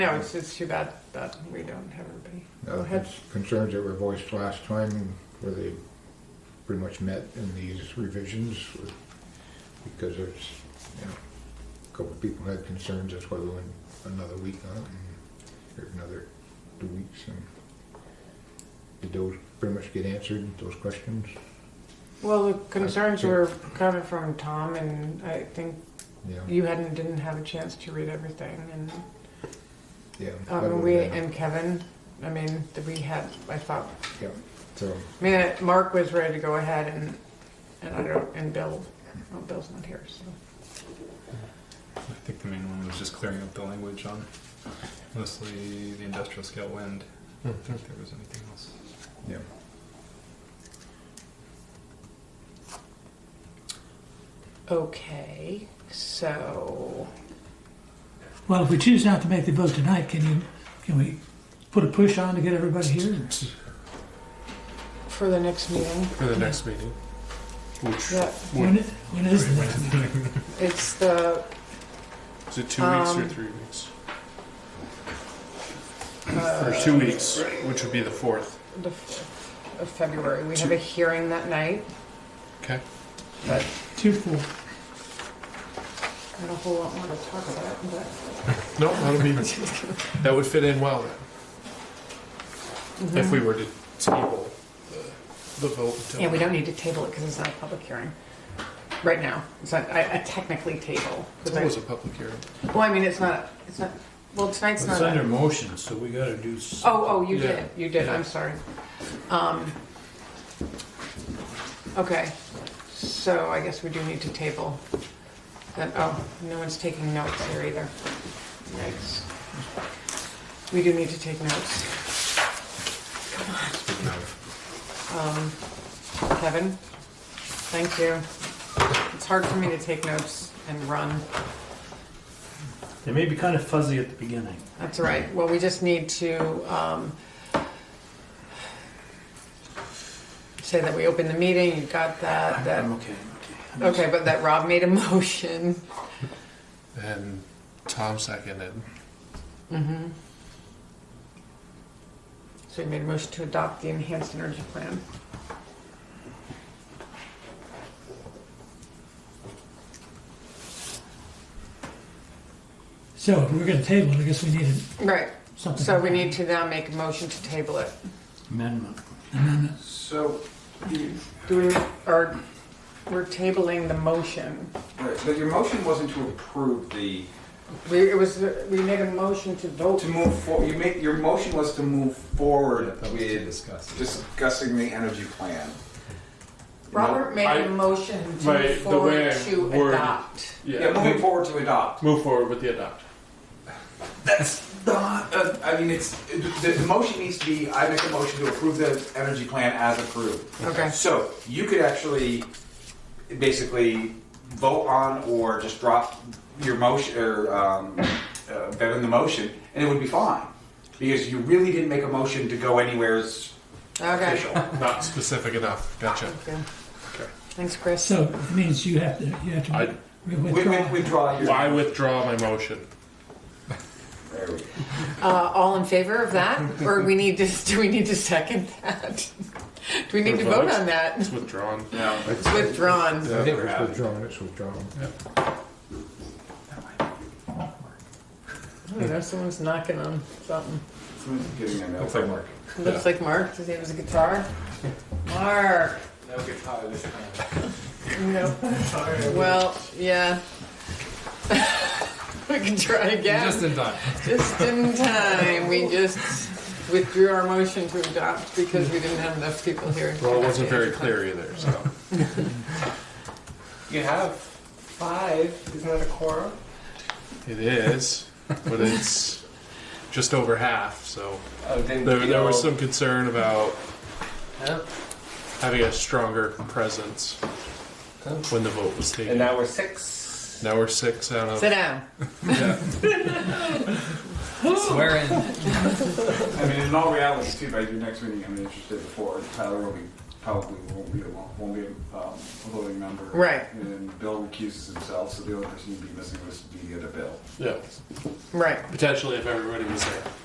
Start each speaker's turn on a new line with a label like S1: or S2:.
S1: No, it's just too bad that we don't have everybody. Go
S2: Uh,
S1: ahead.
S2: cons- Concerns that were voiced last time, where they pretty much met in these revisions, with- because there's, you know, a couple of people had concerns, that's why we went another week on it, and, or another two weeks, and did those pretty much get answered, those questions?
S1: Well, the concerns were coming from Tom, and I think
S2: Yeah,
S1: you hadn't didn't have a chance to read everything, and
S2: yeah. that
S1: um,
S2: would've
S1: we
S2: been-
S1: and Kevin. I mean, that we had. I thought.
S2: Yeah, so,
S1: I mean, uh, Mark was ready to go ahead, and and I don't. And Bill, well, Bill's not here, so
S3: I think the main one was just clearing up the language on mostly the industrial scale wind. I don't think there was anything else.
S2: yeah.
S1: okay. So
S4: Well, if we choose not to make the vote tonight, can you, can we put a push on to get everybody here?
S1: for the next meeting,
S5: For the next meeting, which
S1: yeah,
S4: When, when is the next meeting?
S1: it's the
S5: is it two weeks or
S1: Um,
S5: three weeks? Or
S1: uh,
S5: two weeks, which would be the fourth.
S1: the f- of February. We have a hearing that night.
S5: Okay.
S1: But
S4: Two, four.
S1: I don't know if we'll want to talk about it, but.
S5: No, that'll be that would fit in well then, if we were to table the, the vote. until-
S1: Yeah, we don't need to table it because it's not a public hearing right now. It's not, I, I technically table.
S5: It's always a public hearing.
S1: Well, I mean, it's not, it's not, well, tonight's
S6: It's
S1: not.
S6: under
S1: a-
S6: motion, so we gotta do. s-
S1: Oh, oh, you
S5: Yeah.
S1: did, you did, I'm sorry. Um, okay, so I guess we do need to table. Then, oh, no one's taking notes here either. Yikes. We do need to take notes.
S3: Speaking of,
S1: Um, Kevin, thank you. It's hard for me to take notes and run.
S6: They may be kind of fuzzy at the beginning.
S1: That's all right. Well, we just need to um, say that we opened the meeting, you got that,
S6: I'm
S1: that,
S6: okay. I'm
S1: okay, but that Rob made a motion.
S5: And Tom seconded.
S1: Mm-hmm. So you made a motion to adopt the enhanced energy plan.
S4: So if we're gonna table it, I guess we needed
S1: Right,
S4: something.
S1: so we need to now make a motion to table it.
S6: Amendment.
S7: So, you-
S1: Do we, or, we're tabling the motion.
S7: right, but your motion wasn't to approve the,
S1: We, it was, we made a motion to vote.
S7: to move for, you made, your motion was to move forward
S3: that was to
S7: with
S3: discuss.
S7: discussing the energy plan.
S1: Robert made
S5: I-
S1: a motion to
S5: Right,
S1: move
S5: the way
S1: forward
S5: I
S1: to
S5: worded-
S1: adopt.
S7: Yeah, moving forward to adopt.
S5: Move forward with the adopt.
S7: That's not, uh, I mean, it's, the, the motion needs to be, I make a motion to approve the energy plan as approved.
S1: Okay,
S7: So, you could actually basically vote on or just drop your motion, or, um, uh, bend the motion, and it would be fine. Because you really didn't make a motion to go anywheres
S1: okay.
S7: official.
S5: Not specific enough. Gotcha.
S1: Okay. Thanks, Chris.
S4: So it means you have to, you have
S5: I-
S4: to we
S7: Wi-
S4: withdraw.
S7: wi- Withdraw your.
S5: I withdraw my motion.
S7: There we go.
S1: Uh, all in favor of that, or we need to, do we need to second that? Do we need to vote on that?
S5: It's withdrawn.
S7: No.
S1: It's withdrawn.
S2: Yeah,
S7: think we're
S2: it's
S7: out.
S2: withdrawn, it's withdrawn.
S1: Oh, There's someone's knocking on something.
S7: Someone's giving a note.
S3: Looks like Mark.
S1: Looks like Mark, does he have his guitar? Mark,
S7: No guitar this time.
S1: no. Well, yeah. We can try again.
S3: Just in time.
S1: Just in time, we just withdrew our motion to adopt because we didn't have enough people here.
S5: Well, it wasn't very clear either. So
S7: You have five, isn't that a quorum?
S5: it is, but it's just over half. So.
S7: Oh, then
S5: There,
S7: we
S5: there was
S7: all-
S5: some concern about
S7: Huh?
S5: having a stronger presence when the vote was
S7: And
S5: taken.
S7: now we're six.
S5: Now we're six out
S1: Sit
S5: of.
S1: down.
S7: I mean, in all reality, too, by your next meeting, I'm interested before Tyler will be probably won't be a, won't be a, um, a voting member.
S1: Right.
S7: And Bill recuses himself, so the only person you'd be missing would be the other Bill.
S5: Yeah,
S1: Right.
S5: potentially if everybody was there.